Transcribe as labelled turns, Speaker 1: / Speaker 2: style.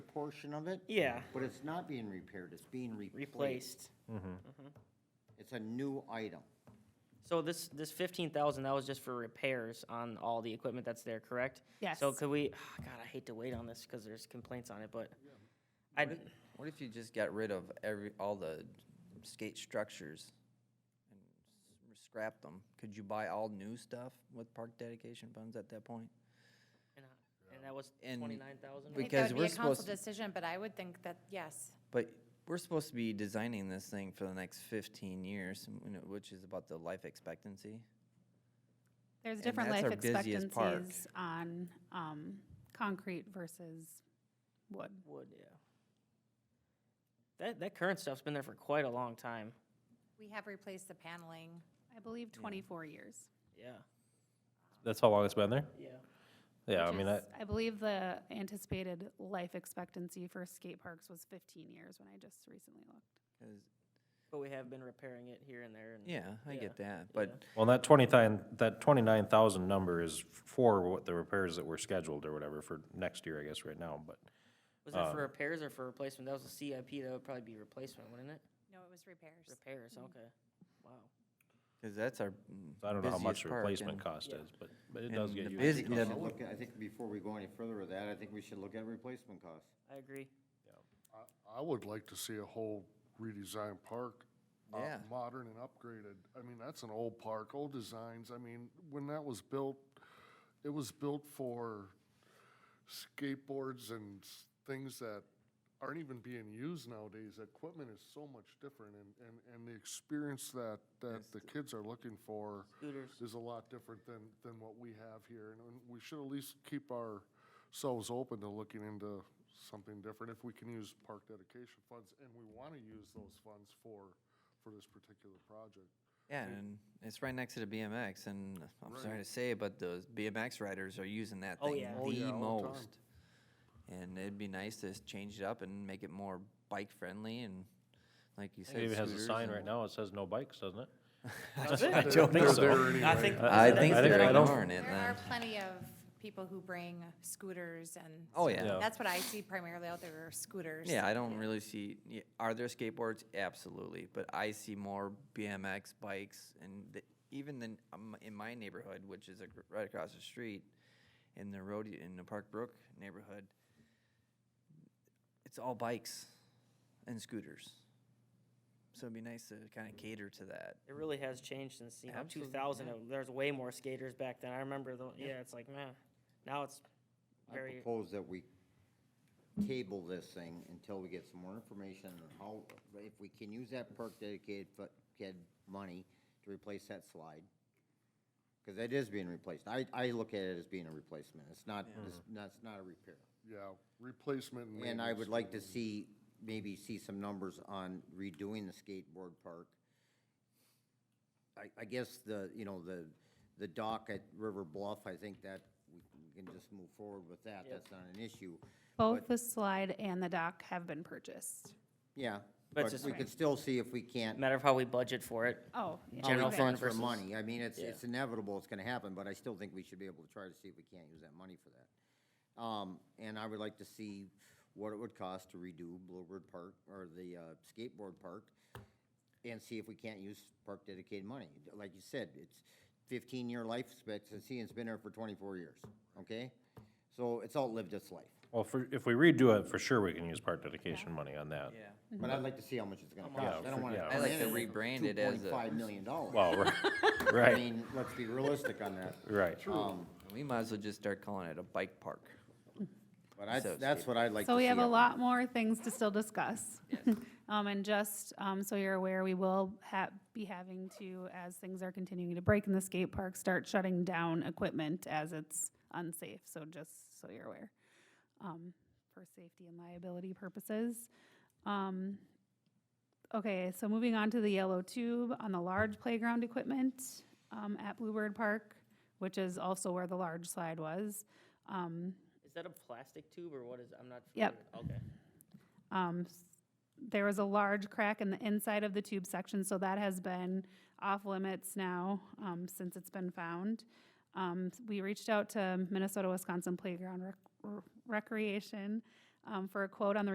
Speaker 1: portion of it,
Speaker 2: Yeah,
Speaker 1: but it's not being repaired, it's being replaced.
Speaker 2: replaced.
Speaker 1: It's a new item.
Speaker 2: So this, this fifteen thousand, that was just for repairs on all the equipment that's there, correct? So
Speaker 3: Yes.
Speaker 2: could we, God, I hate to wait on this because there's complaints on it, but I,
Speaker 4: What if you just got rid of every, all the skate structures and s- scrapped them? Could you buy all new stuff with park dedication funds at that point?
Speaker 2: and that was
Speaker 4: And
Speaker 2: twenty-nine thousand?
Speaker 4: we
Speaker 3: I think that
Speaker 4: because
Speaker 3: would be
Speaker 4: we're
Speaker 3: a council
Speaker 4: supposed to-
Speaker 3: decision, but I would think that, yes.
Speaker 4: But we're supposed to be designing this thing for the next fifteen years, you know, which is about the life expectancy.
Speaker 5: There's
Speaker 4: And
Speaker 5: different
Speaker 4: that's
Speaker 5: life
Speaker 4: our busiest park.
Speaker 5: expectancies on, um, concrete versus wood.
Speaker 2: Would, yeah. That, that current stuff's been there for quite a long time,
Speaker 3: We have replaced the paneling.
Speaker 5: I believe twenty-four years.
Speaker 2: yeah.
Speaker 6: That's how long it's been there?
Speaker 2: Yeah.
Speaker 6: Yeah, I
Speaker 5: which
Speaker 6: mean,
Speaker 5: is-
Speaker 6: that,
Speaker 5: I believe the anticipated life expectancy for skate parks was fifteen years when I just recently looked.
Speaker 4: 'Cause-
Speaker 2: But we have been repairing it here and there and.
Speaker 4: Yeah, I
Speaker 2: Mm. Yeah,
Speaker 4: get that, but
Speaker 6: well, that twenty-nine, that twenty-nine thousand number is for what the repairs that were scheduled or whatever for next year, I guess, right now, but.
Speaker 2: Was that for repairs or for replacement? That was a CIP, that would probably be replacement, wouldn't it?
Speaker 3: No, it was repairs.
Speaker 2: Repairs, okay. Wow.
Speaker 4: Because that's our mm,
Speaker 6: I don't know how much
Speaker 4: busiest park
Speaker 6: replacement
Speaker 4: and-
Speaker 6: cost is, but, but it does
Speaker 4: and
Speaker 6: get
Speaker 4: the
Speaker 6: used.
Speaker 4: busy-
Speaker 1: I
Speaker 4: the-
Speaker 1: look at- I think before we go any further with that, I think we should look at replacement costs.
Speaker 2: I agree.
Speaker 7: I would like to see a whole redesigned park. uh,
Speaker 4: Yeah.
Speaker 7: Modern and upgraded. I mean, that's an old park, old designs. I mean, when that was built, it was built for skateboards and s- things that aren't even being used nowadays. Equipment is so much different and, and, and the experience that, that the kids are looking for
Speaker 2: Scooters.
Speaker 7: is a lot different than, than what we have here. And we should at least keep ourselves open to looking into something different if we can use park dedication funds. And we want to use those funds for, for this particular project.
Speaker 4: Yeah, and it's right next to the BMX, and I'm sorry to say, but those BMX riders are using that
Speaker 2: Oh,
Speaker 4: thing
Speaker 2: yeah.
Speaker 7: Oh, yeah,
Speaker 4: the
Speaker 7: all the time.
Speaker 4: most. And it'd be nice to s- change it up and make it more bike-friendly and, like you said,
Speaker 6: It even has a
Speaker 4: scooters
Speaker 6: sign
Speaker 4: and-
Speaker 6: right now, it says no bikes, doesn't it?
Speaker 4: I don't
Speaker 6: think
Speaker 4: know.
Speaker 6: so.
Speaker 2: I think.
Speaker 4: I think
Speaker 6: I
Speaker 4: they're
Speaker 6: don't-
Speaker 4: ignoring it
Speaker 3: There are
Speaker 4: then.
Speaker 3: plenty of people who bring scooters and.
Speaker 4: Oh,
Speaker 3: stuff.
Speaker 4: yeah.
Speaker 6: Yeah.
Speaker 3: That's what I see primarily out there are scooters.
Speaker 4: Yeah, I don't really see, y- are there skateboards? Absolutely, but I see more BMX bikes and the- even then, um, in my neighborhood, which is ac- right across the street, in the road, in the Park Brook neighborhood, it's all bikes and scooters. So it'd be nice to kind of cater to that.
Speaker 2: It really has changed since, you know, two
Speaker 4: Absolutely,
Speaker 2: thousand, there's way more skaters back then, I remember the, yeah, it's like, man, now it's
Speaker 1: I
Speaker 2: very,
Speaker 1: propose that we table this thing until we get some more information on how, if we can use that perk dedicated fu- kid money to replace that slide. Because that is being replaced. I, I look at it as being a replacement. It's not, it's not, it's not a repair.
Speaker 7: Yeah, replacement and
Speaker 1: And I would
Speaker 7: maintenance.
Speaker 1: like to see, maybe see some numbers on redoing the skateboard park. I, I guess the, you know, the, the dock at River Bluff, I think that we can just move forward with that. That's not an issue.
Speaker 5: Both the slide and the dock have been purchased.
Speaker 1: Yeah,
Speaker 2: But
Speaker 1: but
Speaker 2: just-
Speaker 1: we could still see if we can't,
Speaker 2: matter of how we budget for it.
Speaker 5: Oh, yeah.
Speaker 1: how
Speaker 2: General
Speaker 1: we
Speaker 2: fund
Speaker 1: transfer
Speaker 2: versus-
Speaker 1: money. I mean, it's, it's inevitable, it's gonna happen, but I still think we should be able to try to see if we can't use that money for that. Um, and I would like to see what it would cost to redo Bluebird Park, or the, uh, skateboard park, and see if we can't use park dedicated money. Like you said, it's fifteen-year life expectancy, and it's been there for twenty-four years, okay? So it's outlived its life,
Speaker 6: Well, for, if we redo it, for sure we can use part dedication money on that.
Speaker 1: but I'd like to see how much it's gonna cost. I don't
Speaker 6: for-
Speaker 1: wanna.
Speaker 6: yeah.
Speaker 4: I like to
Speaker 1: come in at
Speaker 4: rebrand it as a-
Speaker 1: $2.5 million dollars.
Speaker 6: Well, right,
Speaker 1: I
Speaker 6: right,
Speaker 1: mean, let's be realistic on that.
Speaker 6: right.
Speaker 1: Um,
Speaker 4: We might as well just start calling it a bike park.
Speaker 1: But I,
Speaker 4: So
Speaker 1: that's what I'd like to see.
Speaker 5: So we have a
Speaker 1: happen.
Speaker 5: lot more things to still discuss. Um, and just, um, so you're aware, we will ha- be having to, as things are continuing to break in the skate park, start shutting down equipment as it's unsafe, so just so you're aware. Um, for safety and liability purposes. Um, okay, so moving on to the yellow tube on the large playground equipment, um, at Bluebird Park, which is also where the large slide was. Um,
Speaker 2: Is that a plastic tube or what is, I'm not.
Speaker 5: Yep.
Speaker 2: familiar- Okay,
Speaker 5: Um, s- There was a large crack in the inside of the tube section, so that has been off limits now um, since it's been found. Um, s- We reached out to Minnesota Wisconsin Playground Rec- R- Recreation um, for a quote on the